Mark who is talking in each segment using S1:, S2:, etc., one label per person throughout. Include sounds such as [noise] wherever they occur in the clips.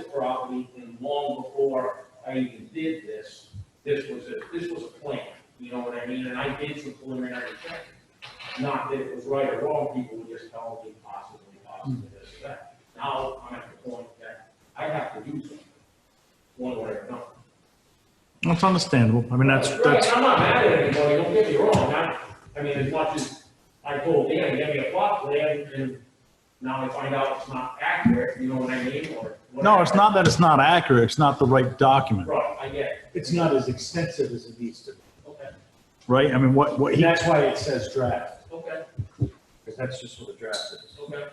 S1: property, and long before I even did this, this was a, this was a plan, you know what I mean? And I did some preliminary checks. Not that it was right or wrong, people would just tell me possibly, possibly this, or that. Now, I'm at the point that I have to do something, one way or another.
S2: That's understandable. I mean, that's, that's,
S1: Right, I'm not mad at anybody, don't get me wrong, I, I mean, as much as I told Dan, give me a plot plan, and now I find out it's not accurate, you know what I mean, or.
S2: no, it's
S1: whatever.
S2: not that it's not accurate. It's not the right document,
S1: Right, I get it,
S3: It's not as extensive as it needs to be.
S1: okay,
S2: right? I mean, what, what
S3: And
S2: he, I
S3: that's why it says draft,
S1: okay,
S3: because that's just what a draft is.
S1: okay,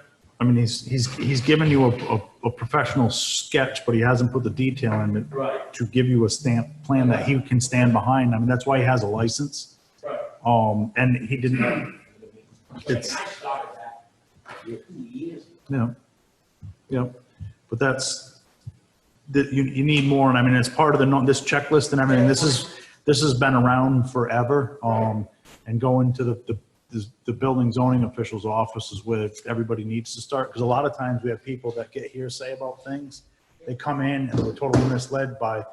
S2: mean, he's, he's, he's given you a, a, a professional sketch, but he hasn't put the detail in it
S1: right,
S2: to give you a stamp plan that he can stand behind. I mean, that's why he has a license.
S1: right.
S2: Um, and he didn't, you
S1: Like, I
S2: It's-
S1: started that two years ago.
S2: know, you know, but that's, that you, you need more. And I mean, it's part of the, no- this checklist and everything. This is, this has been around forever. Um, and going to the, the, the building zoning officials' offices where everybody needs to start. Because a lot of times we have people that get hearsay about things. They come in and they're totally misled by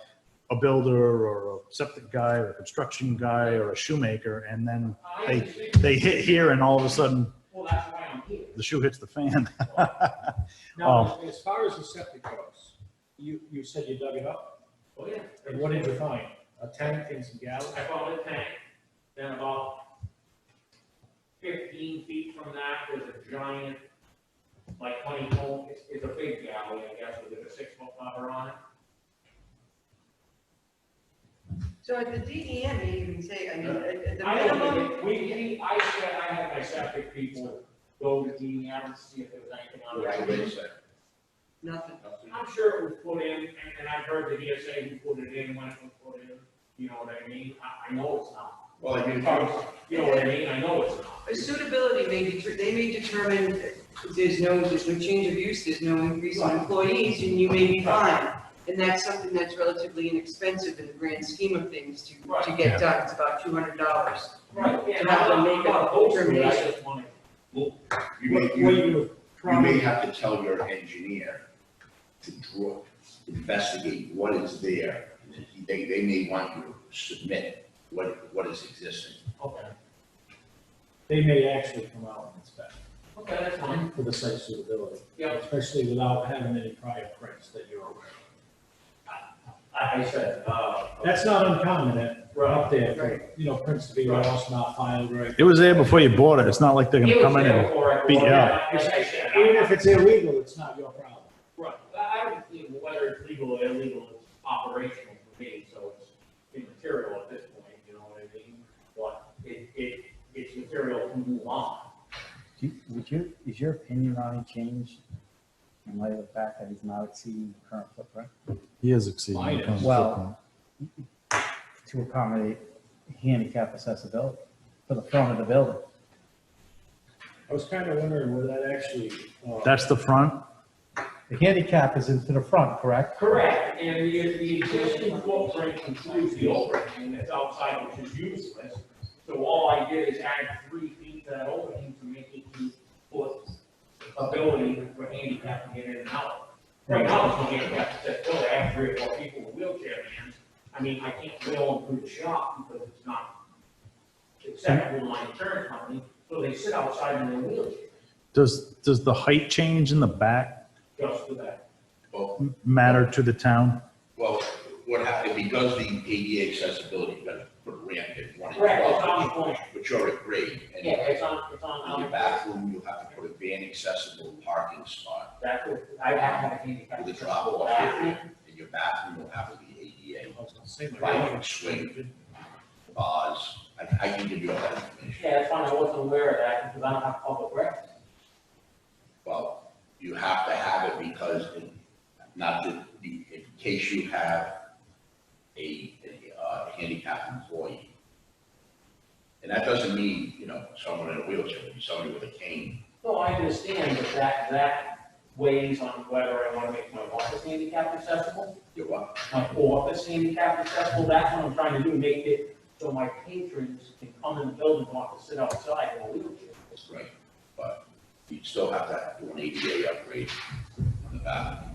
S2: a builder or a septic guy or a construction guy or a shoemaker. And then they, they hit here and all of a sudden
S1: Well, that's why I'm here.
S2: the shoe hits the fan. [laughs]
S3: Now, as far as the septic goes, you, you said you dug it up,
S1: Oh, yeah.
S3: and what did you find? A tank and some gallons?
S1: I found a tank, then about fifteen feet from that was a giant, like honeycomb, it's, it's a big galley, I guess, with a six foot cover on it.
S4: So at the E DEM, they even say, I mean, at at the
S1: I don't
S4: minimum,
S1: think, it- we, we, I said, I had my septic people go to the, I to see if there was anything on
S5: Which
S1: it.
S5: way is that?
S4: nothing.
S1: I'm sure it was put in, and, and I've heard the DSA who put it in, when it was put in, you know what I mean? I, I know it's not.
S5: Well, I mean,
S1: You know what I mean? I know it's not.
S4: A Suitability may deter, they may determine that there's no, there's no change of use, there's no increase in employees, and you may be fine. And that's something that's relatively inexpensive in the grand scheme of things to, to
S2: Yeah.
S4: get done, it's about two hundred dollars.
S1: Right, yeah,
S4: So
S1: I'm
S4: how
S1: not,
S4: do we
S1: I'm
S4: make
S1: not
S4: a
S1: opposed to it, I
S4: determination?
S1: just wanted
S5: You
S3: What
S5: may,
S3: what
S5: you, you
S3: you have
S5: may
S3: probably,
S5: have to tell your engineer to draw, investigate what is there. They, they may want you to submit what, what is existing.
S1: Okay,
S3: they may actually come out and inspect
S1: okay, that's fine.
S3: for the site suitability.
S1: Yeah.
S3: Especially without having any prior prints that you're aware of.
S1: I, I said, uh.
S3: That's not uncommon at,
S1: Right.
S3: up there, for, you know, prints to be lost, not filed, right?
S2: It was there before you bought it. It's not like they're
S1: It
S2: gonna
S1: was
S2: come in
S1: there
S2: and,
S1: before I
S2: beat
S1: bought
S2: you
S1: it.
S2: up.
S1: Like I said, I-
S3: Even if it's illegal, it's not your problem.
S1: Right, I I don't think whether it's legal or illegal, it's operational for me, so it's immaterial at this point, you know what I mean? But it, it, it's material to move on.
S6: Do you- Would your, is your opinion on it changed in light of the fact that he's not exceeding the current footprint?
S2: he is exceeding. the
S3: Mine is.
S2: current
S6: Well-
S2: footprint.
S6: To accommodate handicap accessibility for the front of the building?
S3: I was kind of wondering where that actually, uh,
S2: That's the front?
S6: The handicap is into the front, correct?
S1: Correct, and the, the existing footprint includes the opening that's outside, which is useless. So all I did is add three feet to that opening to make it two foot ability for handicap to get in and out. Right now, it's only handicap accessibility, I have three or four people with wheelchair vans. I mean, I can't wheel them through the shop because it's not acceptable in my insurance company, so they sit outside in their wheelchair,
S2: Does, does the height change in the back
S1: just for that.
S5: Well,
S2: matter to the town?
S5: Oh, well, what happened, because the ADA accessibility, you gotta put a ramp in one. and
S1: Correct, it's
S5: twelve,
S1: on the point,
S5: Which are a grade,
S1: yeah,
S5: and
S1: it's on, it's on.
S5: in your bathroom, you'll have to put a van accessible parking spot
S1: That would, I would have to be.
S5: with a drop off area, and your bathroom will have to be ADA.
S3: I was gonna say my-
S5: Right, swing. Bars, I, I can give you all that information.
S1: Yeah, that's fine, I wasn't aware of that, because I don't have public records.
S5: Well, you have to have it because, in- not to, be- in case you have a, a uh, handicapped employee. And that doesn't mean, you know, someone in a wheelchair, it could be somebody with a cane.
S1: No, I understand, but that, that weighs on whether I wanna make my office handicap accessible,
S5: You're what?
S1: my office handicap accessible, that's what I'm trying to do, make it so my patrons can come in the building, and want to sit outside in a wheelchair.
S5: That's right. But you still have to do an ADA upgrade on the bathroom.